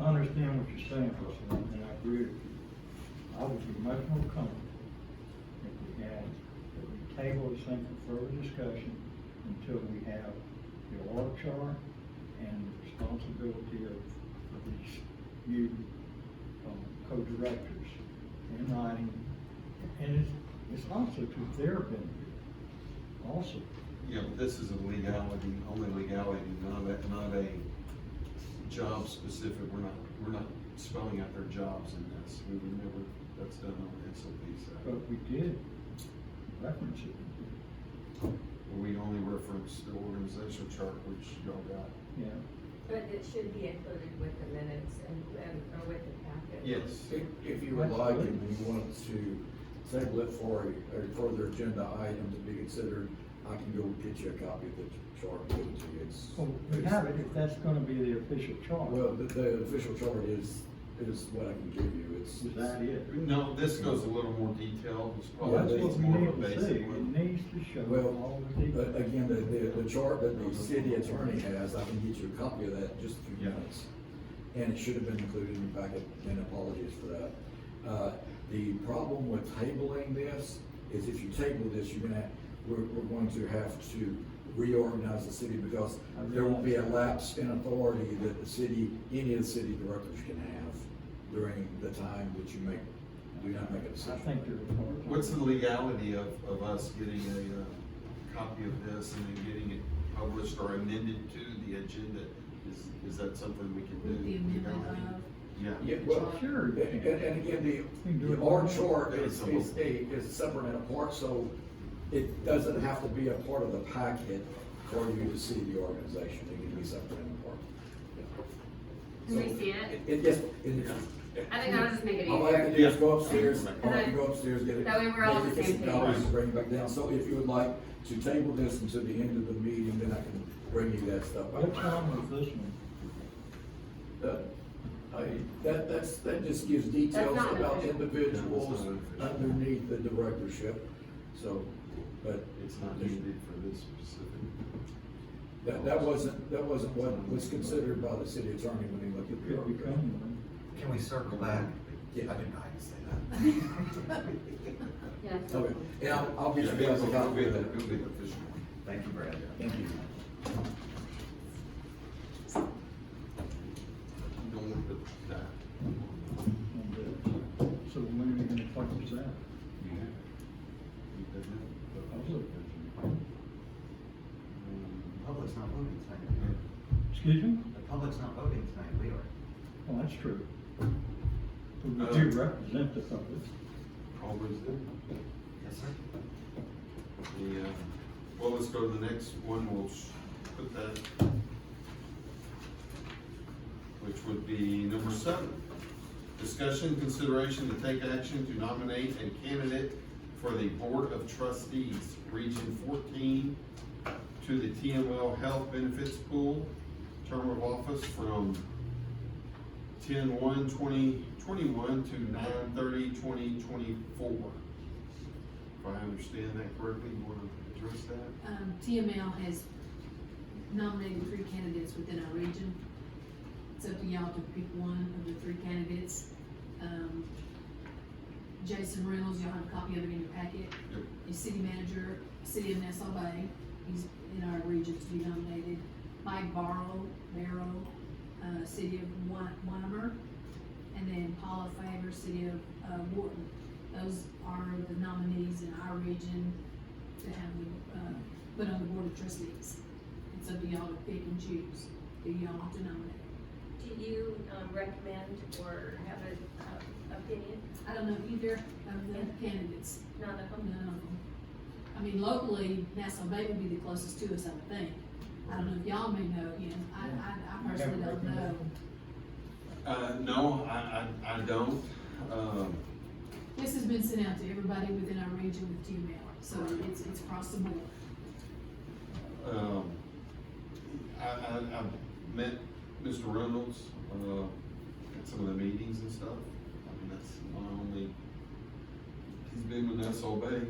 I understand what you're saying, Russell, and I agree with you. I would be much more comfortable if we had, if we table this thing for further discussion until we have the org chart and the responsibility of, of these new, um, co-directors in writing. And it's, it's also to their benefit, also. Yeah, but this is a legality, only legality, not a, not a job specific, we're not, we're not spelling out their jobs in this, we would never, that's done on S O P side. But we did reference it, We only reference the organizational chart, which y'all got. yeah. But it should be included with the minutes and, and, or with the packet. Yes. If, if you would like, and you wanted to table it for a, a further agenda item to be considered, I can go get you a copy of the chart, and give it to you, it's. Well, Oh, we have it, if that's gonna be the official chart. Well, the, the official chart is, is what I can give you, it's. Is that it? No, this goes a little more detailed, it's Well, Yeah, probably, that's they- what it's we more of a need to see, basic it one. needs to show all Well, the but details. again, the, the, the chart that the city attorney has, I can get you a copy of that in just a few Yeah. minutes. And it should have been included in your packet, and apologies for that. Uh, the problem with tabling this is if you table this, you're gonna, we're, we're going to have to reorganize the city because I there will be a realize that. lapse in authority that the city, any of the city directors can have during the time that you make, do not make a I decision. think there's more. What's the legality of, of us getting a, uh, copy of this and then getting it published or amended to the agenda? Is, is that something we can do? With the amendment of- Yeah. Yeah, well, Sure. And, and and again, can the, do it. the R chart is, is a, is separate and apart, so it doesn't have to be a part of the packet for you to see the organization, it can be separate and apart. Can we see it? It, yes, it, I think that'll just make it all I have to easier. do is go upstairs, Yeah. all I have to go upstairs, get it. That way we're all on the get some same dollars page. and Bring it back down, so if you would like to table this until the end of the meeting, then I can bring you that stuff. What time was this one? That- Uh, I, that, that's, that just gives details That's not about official. individuals No, it's not official. underneath the directorship, so, but. It's not needed for this specific. That, that wasn't, that wasn't what was considered by the city attorney when he looked at the. Could article. become one. Can we circle back? Yeah. I didn't know how to say that. Yeah. Okay, and I'll, I'll Yeah, get you guys a it'll copy be of the, that. it'll be the official one. Thank you, Brad. Thank you. You Don't want to, that. And, uh, So when are you gonna talk this out? You have it. You doesn't have it. I'll look. Um, Public's not voting tonight. Excuse me? The public's not voting tonight, we are. Well, that's true. But we Uh, do represent the public. Always there. Yes, sir. The, uh, well, let's go to the next one, we'll s- put that, which would be number seven. Discussion, consideration to take action to nominate a candidate for the Board of Trustees, Region fourteen, to the TML Health Benefits Pool, term of office from 10-1-2021 to 9-30-2024. If I understand that correctly, you wanna address that? Um, TML has nominated three candidates within our region. It's up to y'all to pick one of the three candidates. Um, Jason Reynolds, y'all have a copy of it in your packet. Yep. He's city manager, city of Nassau Bay, he's in our region to be nominated. Mike Barrow, Barrow, uh, city of Wy- Wymer, and then Paula Faber, city of, uh, Wharton. Those are the nominees in our region to have, the, uh, put on the board of trustees. It's up to y'all to pick and choose, who y'all want to nominate. Do you, um, recommend or have an opinion? I don't know either of the candidates. Not a, No. I mean, locally, Nassau Bay would be the closest to us, I would think. I don't know if y'all may know, you know, I, I, I personally don't know. Uh, no, I, I, I don't, um, This has been sent out to everybody within our region with TML, so it's, it's across the board. um, I, I, I've met Mr. Reynolds, uh, at some of the meetings and stuff. I mean, that's my only, he's been with Um, us all day,